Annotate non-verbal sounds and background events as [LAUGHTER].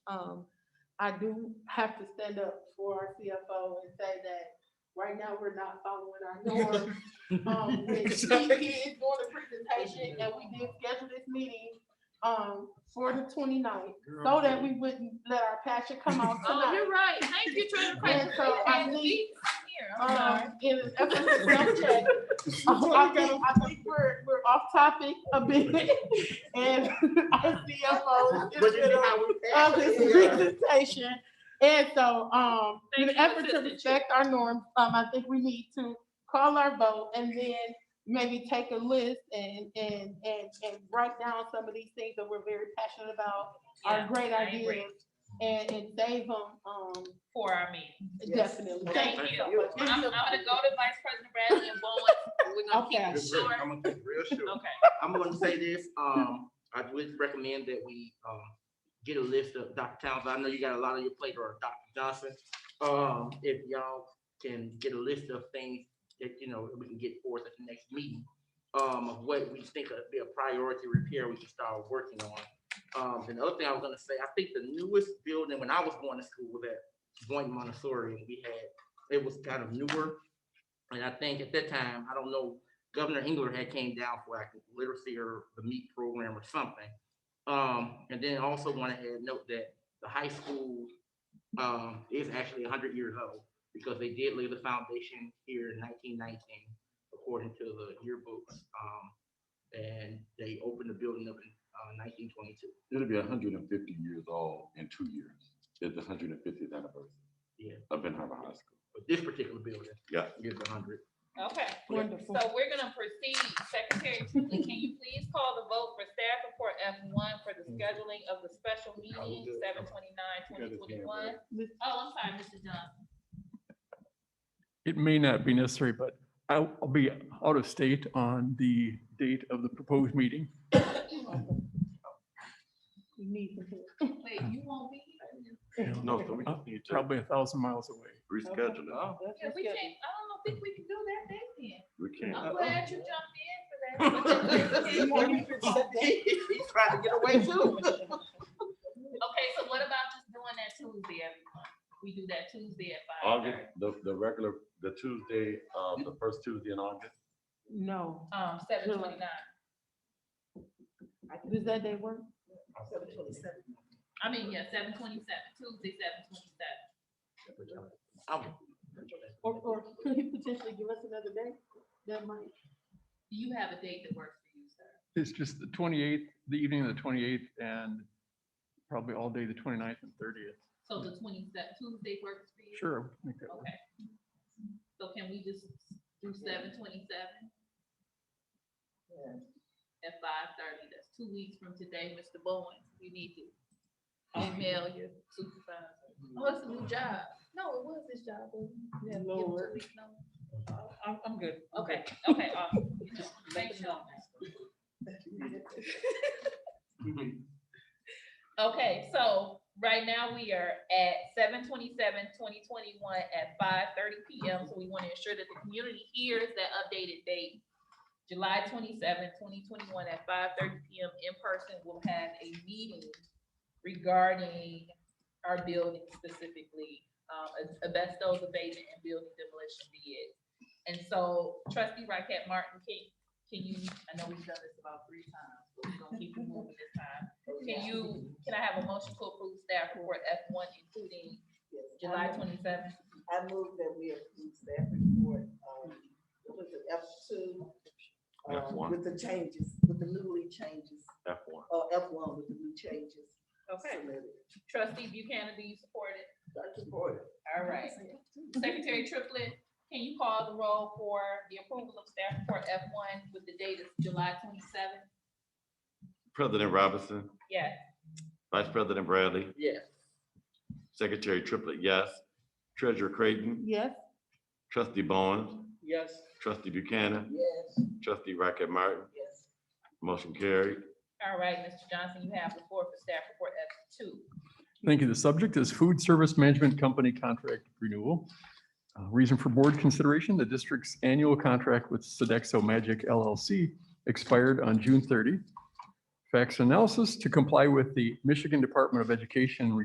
Um, I do have to stand up for our CFO and say that right now we're not following our norm. Um, when he, he is doing the presentation and we did schedule this meeting, um, for the 29th, so that we wouldn't let our passion come out Oh, tonight. you're right. Thank you, Treasurer Yeah, Craig. so I And need- we- here, I'm sorry. Um, in an effort to self-check, I think, I think we're, we're off topic a bit, and [LAUGHS] our CFO is in the middle of this [LAUGHS] presentation. And so, um, in an Thank you, effort to Assistant Chair. respect our norms, um, I think we need to call our vote and then maybe take a list and, and, and, and write down some of these things that we're very passionate about, Yeah, our great I agree. ideas, and, and save them, um, For our meeting. definitely. Thank Thank you so you. much. I'm, I'm gonna go to Vice President Bradley and Bowen. We're gonna keep it Okay. short. I'm gonna keep it real short. Okay. I'm gonna say this, um, I would recommend that we, um, get a list of Dr. Towns, I know you got a lot on your plate, or Dr. Johnson. Um, if y'all can get a list of things that, you know, we can get forth at the next meeting. Um, of what we think would be a priority repair we can start working on. Um, and the other thing I was gonna say, I think the newest building, when I was going to school, was at Point Montessori, and we had, it was kind of newer. And I think at that time, I don't know Governor Engler had came down for like literacy or the meat program or something. Um, and then also want to note that the high school, um, is actually hundred years old because they did lay the foundation here in nineteen nineteen, according to the yearbooks. Um, and they opened the building up in, uh, nineteen twenty-two. It'll be hundred and fifty years old in two years. It's the hundred and fiftieth anniversary. Yeah. Of Ben Harbor High School. But this particular building. Yeah. Is a hundred. Okay. Wonderful. So we're gonna proceed. Secretary Tinsley, can you please call the vote for staff report F one for the scheduling of the special meeting, good. seven twenty-nine, You got twenty his hand twenty-one? Oh, I'm sorry, Mr. Johnson. It may not be necessary, but I'll I'll be out of state on the date of the proposed meeting. We need to. Wait, you won't be here? No, so we uh, just need to Probably a thousand miles away. Oh. reschedule it. Yeah, we can't, I don't think we can do that date We then. can't. I'm glad you jumped [LAUGHS] in for that. [LAUGHS] He's trying to get away too. Okay, so what about just doing that Tuesday, everyone? We do that Tuesday at five August, thirty. the, the regular, the Tuesday, um, the first Tuesday in August. No, Um, seven twenty-nine. does that day work? I mean, yeah, seven twenty-seven, Tuesday, seven twenty-seven. I'm- Or, or [LAUGHS] could he potentially give us another day? That might, Do you have a date that works for you, sir? It's just the twenty-eighth, the evening of the twenty-eighth and probably all day the 29th and thirtieth. So the twenty-seven, Tuesday works for you? Sure. I think that works. Okay. So can we just do seven twenty-seven? At five thirty, that's two weeks from today, Mr. Bowen, you need to email your supervisor. Oh, it's a new job. No, it was his job. wasn't it? Yeah, give him two Lord. weeks' notice. I'm, I'm good. Okay, okay, [LAUGHS] awesome. You know, Thank you. Okay, so right now we are at 727-2021 at five thirty P M. So we want to ensure that the community hears that updated date. July 27, 2021, at five thirty P M in person, we'll have a meeting regarding our building specifically, um, as- asbestos abatement and building demolition bid. And so trustee Raquel Martin, can, can you, I know we've done this about three times, but we're gonna keep it moving this time. Can you, can I have a motion to approve staff report F one including July twenty-seventh? I move that we approve staff report, um, with the F two. um, F one. With the changes, with the newly changes, F one. or F one with the new changes. submitted. Trustee Buchanan, do you support it? Dr. Boyer. All right. Secretary Triplett, can you call the roll for the approval of staff report F one with the date of July twenty-seventh? President Robinson, Yes. Vice President Bradley, Yes. Secretary Triplett, yes. Treasurer Creighton, yes, Trustee Bowens, Yes. Trustee Buchanan, Yes, Trustee Rocket Martin, yes. motion carried. All right, Mr. Johnson, you have the floor for staff report F two. Thank you. The subject is food service management company contract renewal. Uh, Reason for board consideration, the district's annual contract with Sodexo Magic LLC expired on June 30. Facts analysis to comply with the Michigan Department of Education